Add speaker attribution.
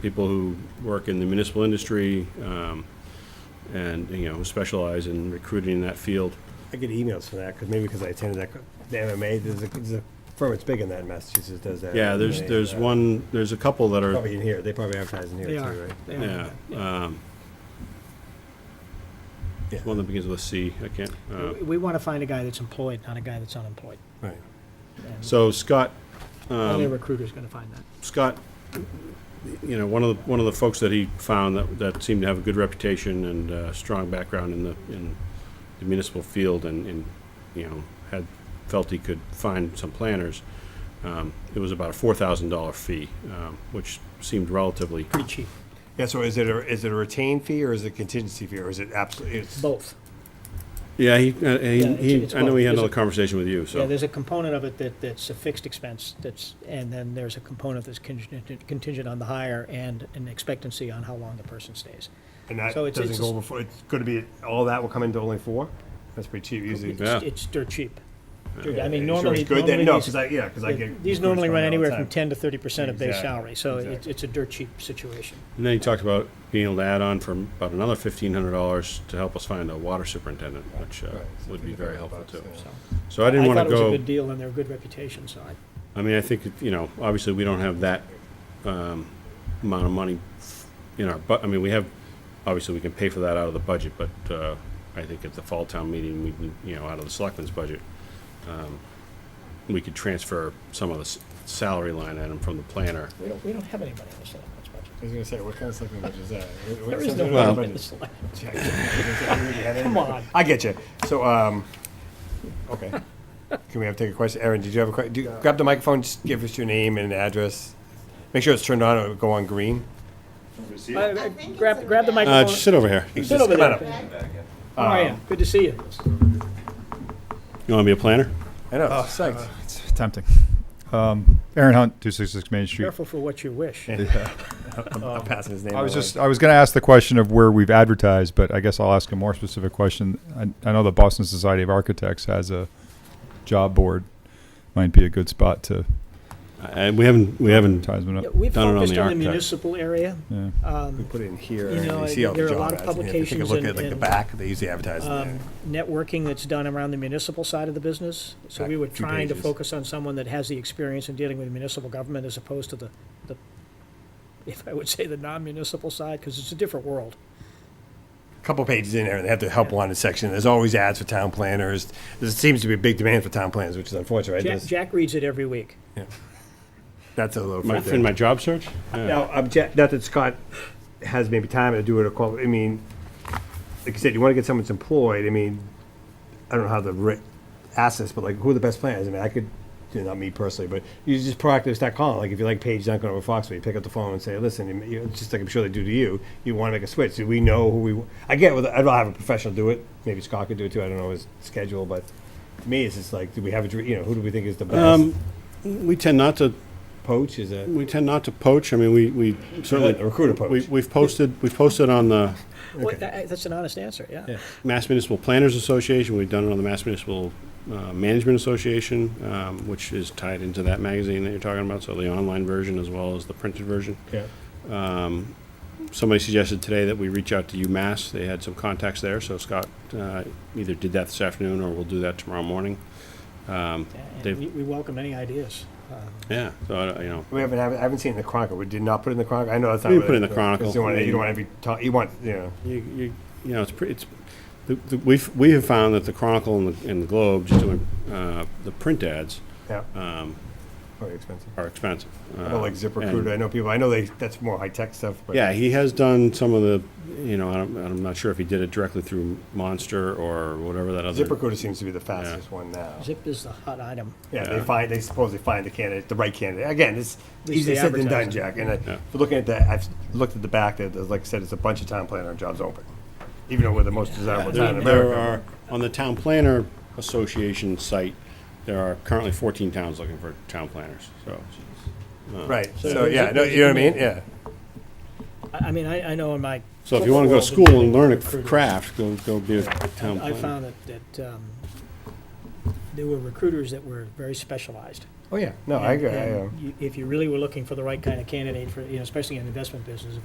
Speaker 1: people who work in the municipal industry um, and, you know, who specialize in recruiting in that field.
Speaker 2: I get emails for that, because maybe because I attended that, co- the MMA, there's a, there's a firm that's big in that in Massachusetts does that.
Speaker 1: Yeah, there's,
Speaker 2: MMA,
Speaker 1: there's
Speaker 2: uh,
Speaker 1: one, there's a couple that are,
Speaker 2: Probably in here, they probably advertise in here
Speaker 3: They
Speaker 2: too,
Speaker 3: are.
Speaker 2: right?
Speaker 3: They are.
Speaker 1: yeah. um,
Speaker 2: Yeah.
Speaker 1: One that begins with a C, I can't. uh,
Speaker 3: We- We want to find a guy that's employed, not a guy that's unemployed.
Speaker 2: Right.
Speaker 3: And
Speaker 1: So um, Scott,
Speaker 3: Only a recruiter's going to find that.
Speaker 1: Scott, you know, one of the, one of the folks that he found that, that seemed to have a good reputation and uh strong background in the, in the municipal field and, and, you know, had, felt he could find some planners. Um, it was about a four thousand dollar fee, um, which seemed relatively,
Speaker 3: Pretty cheap.
Speaker 2: Yeah, so is it a, is it a retained fee or is it a contingency fee or is it absolutely, it's,
Speaker 3: Both.
Speaker 1: yeah, he, uh, he,
Speaker 3: it's-
Speaker 1: he,
Speaker 3: it's
Speaker 1: I know he had
Speaker 3: both.
Speaker 1: another conversation with you,
Speaker 3: Yeah,
Speaker 1: so.
Speaker 3: there's a component of it that, that's a fixed expense that's, and then there's a component that's contingent, contingent on the hire and an expectancy on how long the person stays.
Speaker 2: and that
Speaker 3: So it's-
Speaker 2: doesn't
Speaker 3: it's-
Speaker 2: go over, four- it's gonna be, all that will come into only four? That's pretty cheap usually.
Speaker 1: Yeah.
Speaker 3: It's, it's dirt cheap. Dirt- I
Speaker 2: Are
Speaker 3: mean,
Speaker 2: you sure it's
Speaker 3: normally,
Speaker 2: Good then,
Speaker 3: normally
Speaker 2: no,
Speaker 3: these-
Speaker 2: because I, yeah, because I get.
Speaker 3: These normally
Speaker 2: recruits
Speaker 3: run
Speaker 2: from all the
Speaker 3: anywhere from
Speaker 2: time.
Speaker 3: ten to thirty percent of base
Speaker 2: Exactly,
Speaker 3: salary, so it's,
Speaker 2: exactly.
Speaker 3: it's a dirt cheap situation.
Speaker 1: And then he talked about being able to add on from about another fifteen hundred dollars to help us find a water superintendent, which, uh,
Speaker 2: Right, so
Speaker 1: would
Speaker 2: it's
Speaker 1: be
Speaker 2: a
Speaker 1: very
Speaker 2: couple
Speaker 1: helpful
Speaker 2: bucks,
Speaker 1: too.
Speaker 2: yeah.
Speaker 3: So
Speaker 1: So I didn't
Speaker 3: I
Speaker 1: wanna
Speaker 3: thought it was
Speaker 1: go.
Speaker 3: a good deal and they're a good reputation, so I,
Speaker 1: I mean, I think, it- you know, obviously, we don't have that um, amount of money in our, but, I mean, we have, obviously, we can pay for that out of the budget, but uh, I think at the fall town meeting, we, can, you know, out of the selectmen's budget, um, we could transfer some of the s- salary line item from the planner.
Speaker 3: we don't, we don't have any money in the selectmen's budget.
Speaker 2: I was gonna say, what kind of supplement budget is that? What- what
Speaker 3: There is
Speaker 2: supplement
Speaker 3: no
Speaker 2: is
Speaker 1: Well-
Speaker 3: money in the
Speaker 2: budget?
Speaker 3: select-
Speaker 2: Come
Speaker 3: Come on.
Speaker 2: I get you. So, um, okay. Can we have, take a question? Aaron, did you have a question? Grab the microphone, just give us your name and address. Make sure it's turned on, it'll go on green.
Speaker 3: Uh,
Speaker 4: I think it's
Speaker 3: Grab,
Speaker 4: a
Speaker 3: grab the
Speaker 4: red.
Speaker 1: Uh,
Speaker 3: microphone.
Speaker 1: just sit over here.
Speaker 3: Sit over
Speaker 2: Come on
Speaker 3: there.
Speaker 2: up.
Speaker 3: How are you? Good to see you.
Speaker 1: You want to be a planner?
Speaker 2: I know,
Speaker 3: Oh,
Speaker 2: it's psyched.
Speaker 5: It's tempting. Um, Aaron Hunt, 266 Main Street.
Speaker 3: Careful for what you wish. Um,
Speaker 2: I'm passing his name.
Speaker 5: I was
Speaker 2: along.
Speaker 5: just, I was going to ask the question of where we've advertised, but I guess I'll ask a more specific question. I, I know the Boston Society of Architects has a job board. Might be a good spot to
Speaker 1: And Uh, we haven't, we haven't,
Speaker 5: advertisement
Speaker 3: Yeah,
Speaker 5: up.
Speaker 3: We've
Speaker 1: Done it on
Speaker 3: focused
Speaker 1: the
Speaker 3: on the
Speaker 1: architect.
Speaker 3: municipal area.
Speaker 5: Yeah.
Speaker 2: We put it in here,
Speaker 3: You
Speaker 2: and
Speaker 3: know,
Speaker 2: you see all the
Speaker 3: there are a
Speaker 2: job
Speaker 3: lot of
Speaker 2: ads in here. If you take a
Speaker 3: publications
Speaker 2: look
Speaker 3: and-
Speaker 2: at like the
Speaker 3: and-
Speaker 2: back, they usually advertise in there.
Speaker 3: um, networking that's done around the municipal side of the business. So we
Speaker 2: Back
Speaker 3: were
Speaker 2: a few
Speaker 3: trying to
Speaker 2: pages.
Speaker 3: focus on someone that has the experience in dealing with municipal government as opposed to the, the, if I would say the non-municipal side, because it's a different world.
Speaker 2: couple pages in there, and they have the help wanted section. There's always ads for town planners. There seems to be a big demand for town planners, which is unfortunate. Right?
Speaker 3: Jack,
Speaker 2: There's-
Speaker 3: Jack reads it every week.
Speaker 2: That's a little.
Speaker 1: my-
Speaker 2: fruit there.
Speaker 1: in my job search? Yeah.
Speaker 2: Now, um, Jack, not that Scott has maybe time to do it, or qual- I mean, like you said, you want to get someone that's employed, I mean, I don't know how to ri- ask this, but like, who are the best planners? I mean, I could, you know, not me personally, but you just proactively start calling, like, if you like Paige Duncan over Foxway, you pick up the phone and say, listen, you- you, it's just like I'm sure they do to you, you want to make a switch, do we know who we, w- I get, with- I'd rather have a professional do it, maybe Scott could do it too, I don't know his schedule, but to me, it's just like, do we have a, dr- you know, who do we think is the best?
Speaker 1: Um, We tend not to
Speaker 2: Poach, is it?
Speaker 1: We tend not to poach. I mean, we, we certainly.
Speaker 2: A recruiter poach.
Speaker 1: We, we've posted, we've posted on the
Speaker 3: Well, that- that's an honest answer, yeah.
Speaker 1: Mass Municipal Planners Association. We've done it on the Mass Municipal uh, Management Association, um, which is tied into that magazine that you're talking about. So the online version as well as the printed version. Um,
Speaker 2: Yeah.
Speaker 1: Somebody suggested today that we reach out to UMass. They had some contacts there. So Scott uh, either did that this afternoon or we'll do that tomorrow morning.
Speaker 3: And
Speaker 1: Dave-
Speaker 3: we, we welcome any ideas. Um,
Speaker 1: Yeah. So, I don't- you know,
Speaker 2: We haven't, I haven't- I haven't seen it in the Chronicle. We did not put it in the Chronicle. I know that's not.
Speaker 1: We
Speaker 2: really-
Speaker 1: put it in the Chronicle. Mm.
Speaker 2: You don't want, you don't want every, ta- you want, you know,
Speaker 1: You, you, you know, it's pretty, it's, the, the, we've, we have found that the Chronicle and the, and the Globe, just doing, uh, the print ads
Speaker 2: yeah. Um. Very expensive.
Speaker 1: are expensive. Uh,
Speaker 2: Well, like
Speaker 1: and-
Speaker 2: ZipRecruiter, I know people, I know they, that's more high-tech stuff, but.
Speaker 1: Yeah, he has done some of the, you know, I'm, I'm not sure if he did it directly through Monster or whatever that other.
Speaker 2: ZipRecruiter seems to be the fastest one now.
Speaker 3: Zip is the hot item.
Speaker 2: Yeah, they find, they supposedly find the candidate, the right candidate. Again, it's
Speaker 3: least
Speaker 2: easier
Speaker 3: they
Speaker 2: said than done,
Speaker 3: advertise it.
Speaker 2: Jack. And I- if you're looking at that, I've looked at the back, there, there's, like I said, it's a bunch of town planner jobs open. Even though we're the most desirable town in
Speaker 1: There,
Speaker 2: America.
Speaker 1: there are, on the Town Planner Association site, there are currently fourteen towns looking for town planners, so.
Speaker 2: Right,
Speaker 3: So
Speaker 2: so, yeah,
Speaker 3: Zip-
Speaker 2: no, you know what I mean?
Speaker 3: Zip-
Speaker 2: Yeah.
Speaker 3: I, I mean, I, I know in my.
Speaker 1: So if you wanna go to
Speaker 3: football world,
Speaker 1: school and learn a
Speaker 3: recruiters-
Speaker 1: craft, go, go be a town planner.
Speaker 3: I found that, that um, there were recruiters that were very specialized.
Speaker 2: Oh, yeah, no, I, um,
Speaker 3: And-
Speaker 2: agree. I,
Speaker 3: and
Speaker 2: um,
Speaker 3: you- If you really were looking for the right kind of candidate for, you know, especially in the investment business,